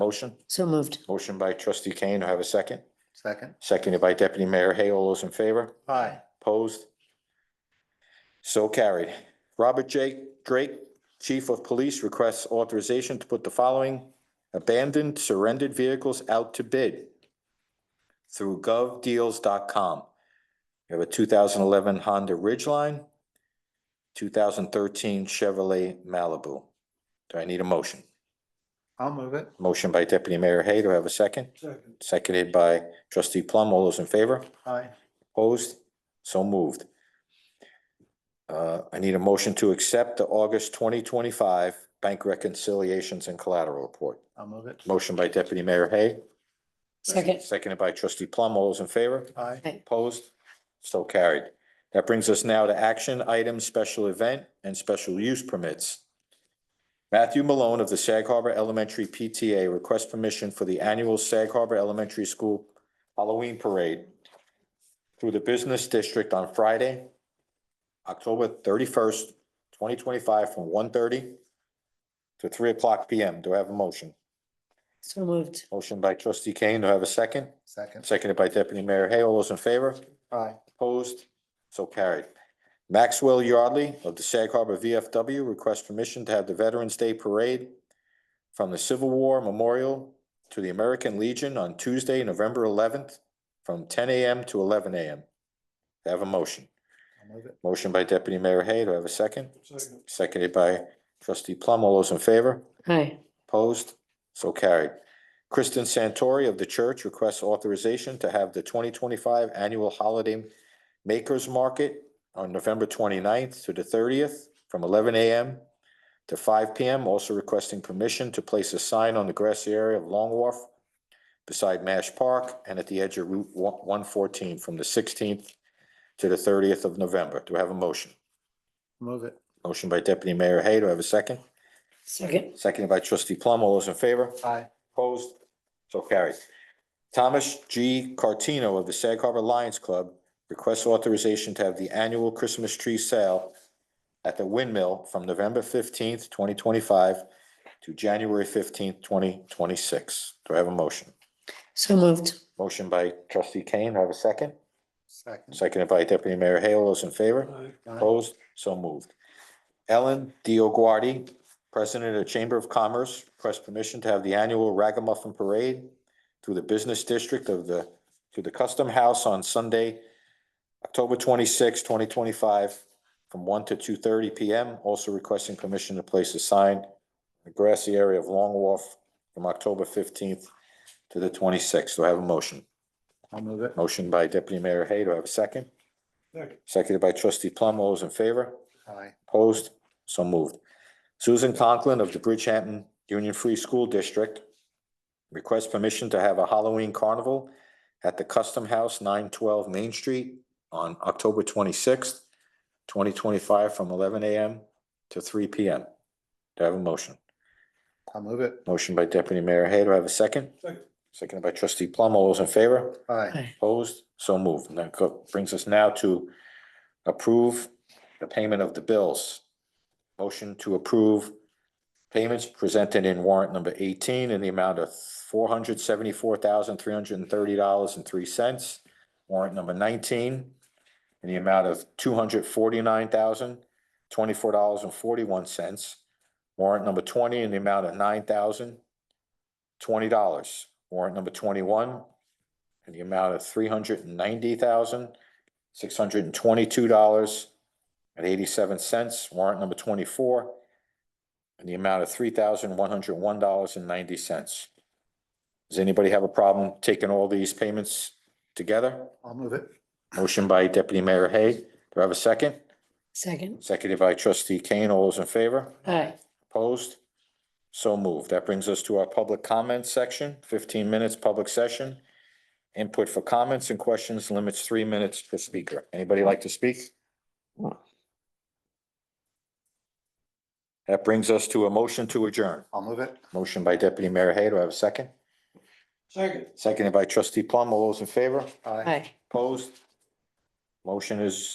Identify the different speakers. Speaker 1: Motion,
Speaker 2: So moved.
Speaker 1: motion by trustee Kane. Do I have a second?
Speaker 3: Second.
Speaker 1: Seconded by deputy mayor Hay. All those in favor?
Speaker 3: Aye.
Speaker 1: Opposed? So carried. Robert J. Drake, Chief of Police, requests authorization to put the following abandoned surrendered vehicles out to bid through govdeals.com. We have a two thousand eleven Honda Ridgeline, two thousand thirteen Chevrolet Malibu. Do I need a motion?
Speaker 3: I'll move it.
Speaker 1: Motion by Deputy Mayor Hay. Do I have a second?
Speaker 3: Second.
Speaker 1: Seconded by Trustee Plum. All those in favor?
Speaker 3: Aye.
Speaker 1: Opposed? So moved. Uh, I need a motion to accept the August twenty twenty-five bank reconciliations and collateral report.
Speaker 3: I'll move it.
Speaker 1: Motion by Deputy Mayor Hay,
Speaker 2: Second.
Speaker 1: seconded by Trustee Plum. All those in favor?
Speaker 3: Aye.
Speaker 1: Opposed? So carried. That brings us now to action items, special event and special use permits. Matthew Malone of the Sag Harbor Elementary PTA requests permission for the annual Sag Harbor Elementary School Halloween Parade through the Business District on Friday, October thirty-first, twenty twenty-five, from 1:30 to three o'clock P M. Do I have a motion?
Speaker 2: So moved.
Speaker 1: Motion by trustee Kane. Do I have a second?
Speaker 3: Second.
Speaker 1: Seconded by deputy mayor Hay. All those in favor?
Speaker 3: Aye.
Speaker 1: Opposed? So carried. Maxwell Yardley of the Sag Harbor VFW requests permission to have the Veterans Day Parade from the Civil War Memorial to the American Legion on Tuesday, November eleventh, from ten AM to eleven AM. Do I Have a motion.
Speaker 3: I'll move it.
Speaker 1: Motion by Deputy Mayor Hay. Do I have a second? Seconded by Trustee Plum. All those in favor?
Speaker 2: Aye.
Speaker 1: Opposed? So carried. Kristen Santori of the church requests authorization to have the twenty twenty-five annual holiday makers market on November 29th to the thirtieth from eleven AM to five PM, also requesting permission to place a sign on the grassy area of Long Wharf beside Mash Park and at the edge of Route one fourteen from the sixteenth to the thirtieth of November. Do I have a motion?
Speaker 3: Move it.
Speaker 1: Motion by Deputy Mayor Hay. Do I have a second?
Speaker 2: Second.
Speaker 1: Seconded by Trustee Plum. All those in favor?
Speaker 3: Aye.
Speaker 1: Opposed? So carried. Thomas G. Cartino of the Sag Harbor Lions Club requests authorization to have the annual Christmas tree sale at the windmill from November fifteenth, twenty twenty-five to January fifteenth, twenty twenty-six. Do I have a motion?
Speaker 2: So moved.
Speaker 1: Motion by trustee Kane. Do I have a second?
Speaker 3: Second.
Speaker 1: Seconded by deputy mayor Hale. All those in favor?
Speaker 3: Aye.
Speaker 1: Opposed? So moved. Ellen Dioguardi, President of the Chamber of Commerce, requests permission to have the annual Ragamuffin Parade through the Business District of the, to the Custom House on Sunday, October 26, twenty twenty-five, from one to two thirty P M. Also requesting permission to place a sign in the grassy area of Long Wharf from October fifteenth to the twenty-sixth. Do I have a motion?
Speaker 3: I'll move it.
Speaker 1: Motion by Deputy Mayor Hay. Do I have a second?
Speaker 3: Second.
Speaker 1: Seconded by Trustee Plum. All those in favor?
Speaker 3: Aye.
Speaker 1: Opposed? So moved. Susan Conklin of the Bridgehampton Union Free School District requests permission to have a Halloween carnival at the Custom House, nine twelve Main Street on October twenty-sixth, twenty twenty-five, from eleven AM to three PM. Do I have a motion?
Speaker 3: I'll move it.
Speaker 1: Motion by Deputy Mayor Hay. Do I have a second?
Speaker 3: Second.
Speaker 1: Seconded by Trustee Plum. All those in favor?
Speaker 3: Aye.
Speaker 1: Opposed? So moved. And that co- brings us now to approve the payment of the bills. Motion to approve payments presented in warrant number eighteen in the amount of four hundred seventy-four thousand, three hundred and thirty dollars and three cents. Warrant number nineteen in the amount of two hundred forty-nine thousand, twenty-four dollars and forty-one cents. Warrant number twenty in the amount of nine thousand, twenty dollars. Warrant number twenty-one in the amount of three hundred and ninety thousand, six hundred and twenty-two dollars and eighty-seven cents. Warrant number twenty-four in the amount of three thousand, one hundred and one dollars and ninety cents. Does anybody have a problem taking all these payments together?
Speaker 3: I'll move it.
Speaker 1: Motion by Deputy Mayor Hay. Do I have a second?
Speaker 2: Second.
Speaker 1: Seconded by Trustee Kane. All those in favor?
Speaker 2: Aye.
Speaker 1: Opposed? So moved. That brings us to our public comment section, fifteen minutes public session. Input for comments and questions limits three minutes per speaker. Anybody like to speak? That brings us to a motion to adjourn.
Speaker 3: I'll move it.
Speaker 1: Motion by Deputy Mayor Hay. Do I have a second?
Speaker 3: Second.
Speaker 1: Seconded by Trustee Plum. All those in favor?
Speaker 3: Aye.
Speaker 2: Aye.
Speaker 1: Opposed? Motion is